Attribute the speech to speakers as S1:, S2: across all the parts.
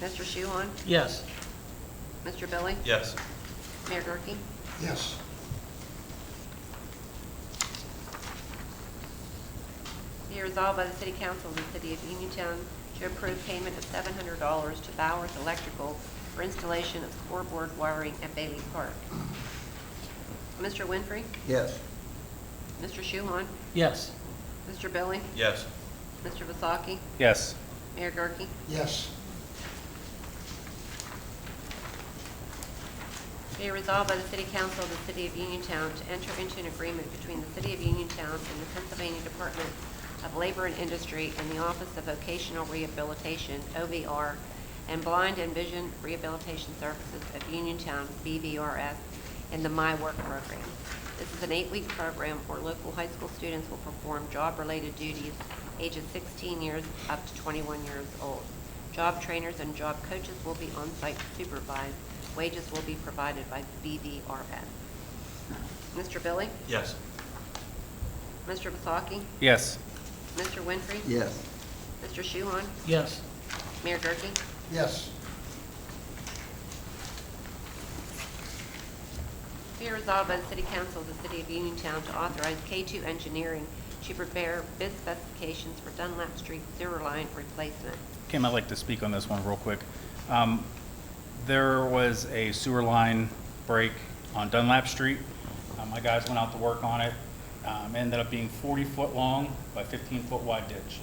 S1: Mr. Shuhon?
S2: Yes.
S1: Mr. Billy?
S3: Yes.
S1: Mayor Gurke?
S4: Yes.
S1: Be resolved by the City Council of the City of Uniontown to approve payment of seven hundred dollars to Bowers Electrical for installation of scoreboard wiring at Bailey Park. Mr. Winfrey?
S4: Yes.
S1: Mr. Shuhon?
S2: Yes.
S1: Mr. Billy?
S3: Yes.
S1: Mr. Vasaki?
S5: Yes.
S1: Mayor Gurke?
S4: Yes.
S1: Be resolved by the City Council of the City of Uniontown to enter into an agreement between the City of Uniontown and the Pennsylvania Department of Labor and Industry and the Office of Vocational Rehabilitation, OVR, and Blind and Vision Rehabilitation Services of Uniontown, BVRS, in the My Work program. This is an eight-week program where local high school students will perform job-related duties ages 16 years up to 21 years old. Job trainers and job coaches will be on-site supervised. Wages will be provided by BVRS. Mr. Billy?
S3: Yes.
S1: Mr. Vasaki?
S5: Yes.
S1: Mr. Winfrey?
S4: Yes.
S1: Mr. Shuhon?
S2: Yes.
S1: Mayor Gurke?
S4: Yes.
S1: Be resolved by the City Council of the City of Uniontown to authorize K2 Engineering to prepare bid specifications for Dunlap Street sewer line replacement.
S5: Kim, I'd like to speak on this one real quick. Um, There was a sewer line break on Dunlap Street. Uh, My guys went out to work on it. Um, Ended up being 40-foot long by 15-foot wide ditch.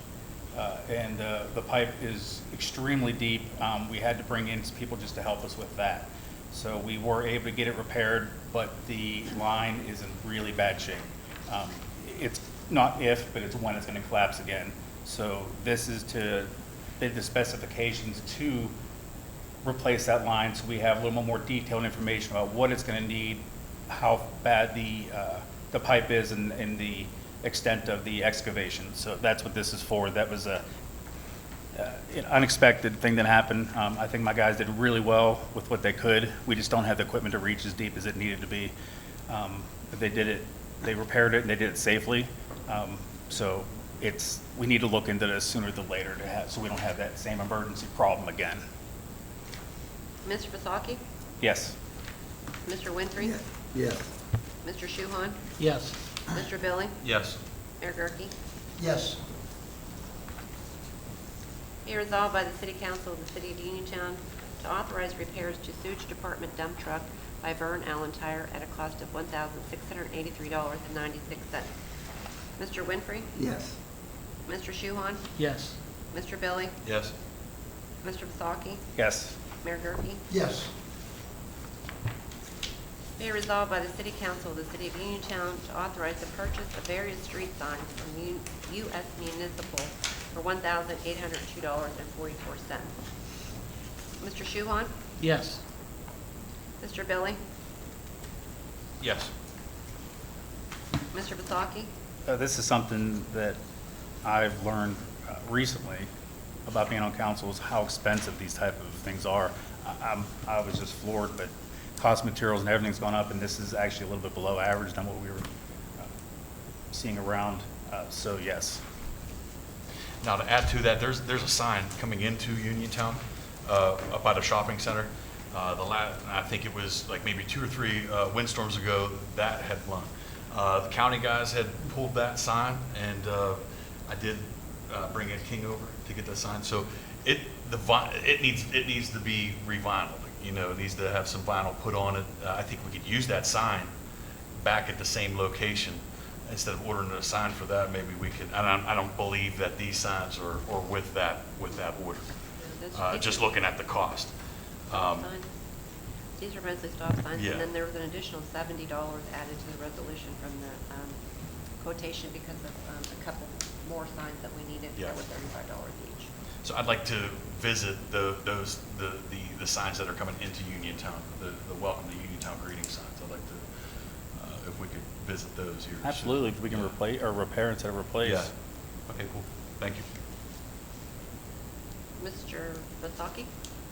S5: Uh, And uh, the pipe is extremely deep. Um, We had to bring in some people just to help us with that. So we were able to get it repaired, but the line is in really bad shape. Um, It's not if, but it's when it's going to collapse again. So this is to bid the specifications to replace that line, so we have a little more detailed information about what it's going to need, how bad the, uh, the pipe is, and, and the extent of the excavation. So that's what this is for. That was a uh, an unexpected thing that happened. Um, I think my guys did really well with what they could. We just don't have the equipment to reach as deep as it needed to be. Um, But they did it, they repaired it, and they did it safely. Um, So it's, we need to look into this sooner than later to have, so we don't have that same emergency problem again.
S1: Mr. Vasaki?
S5: Yes.
S1: Mr. Winfrey?
S4: Yes.
S1: Mr. Shuhon?
S2: Yes.
S1: Mr. Billy?
S3: Yes.
S1: Mayor Gurke?
S4: Yes.
S1: Be resolved by the City Council of the City of Uniontown to authorize repairs to sewage department dump truck by Vern Allen Tire at a cost of one thousand six hundred and eighty-three dollars and ninety-six cents. Mr. Winfrey?
S4: Yes.
S1: Mr. Shuhon?
S2: Yes.
S1: Mr. Billy?
S3: Yes.
S1: Mr. Vasaki?
S5: Yes.
S1: Mayor Gurke?
S4: Yes.
S1: Be resolved by the City Council of the City of Uniontown to authorize the purchase of various street signs from U- U.S. Municipal for one thousand eight hundred and two dollars and forty-four cents. Mr. Shuhon?
S2: Yes.
S1: Mr. Billy?
S3: Yes.
S1: Mr. Vasaki?
S5: Uh, This is something that I've learned uh, recently about being on council is how expensive these type of things are. I- I'm, I was just floored, but cost of materials and everything's gone up, and this is actually a little bit below average than what we were uh, seeing around, Uh, so yes.
S3: Now, to add to that, there's, there's a sign coming into Uniontown, uh, up by the shopping center. Uh, the la, I think it was like maybe two or three, uh, windstorms ago, that had blown. Uh, the county guys had pulled that sign, and, uh, I did, uh, bring Ed King over to get that sign. So it, the vi, it needs, it needs to be revinyled, you know, it needs to have some vinyl put on it. Uh, I think we could use that sign back at the same location. Instead of ordering a sign for that, maybe we could, and I, I don't believe that these signs are, are with that, with that order. Uh, just looking at the cost. Um,
S1: Signs. These are mostly stop signs,
S3: Yeah.
S1: and then there was an additional seventy dollars added to the resolution from the um, quotation because of um, a couple more signs that we needed.
S3: Yeah.
S1: That were thirty-five dollars each.
S3: So I'd like to visit the, those, the, the, the signs that are coming into Uniontown, the, the welcome to Uniontown greeting signs. I'd like to, uh, if we could visit those here.
S5: Absolutely, if we can
S3: Yeah.
S5: replace, or repair instead of
S3: Yeah.
S5: replace.
S3: Okay, cool. Thank you.
S1: Mr. Vasaki?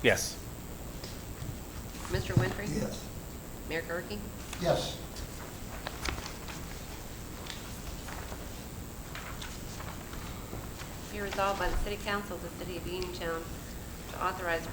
S5: Yes.
S1: Mr. Winfrey?
S4: Yes.
S1: Mayor Gurke?
S4: Yes.
S1: Be resolved by the City Council of the City of Uniontown to authorize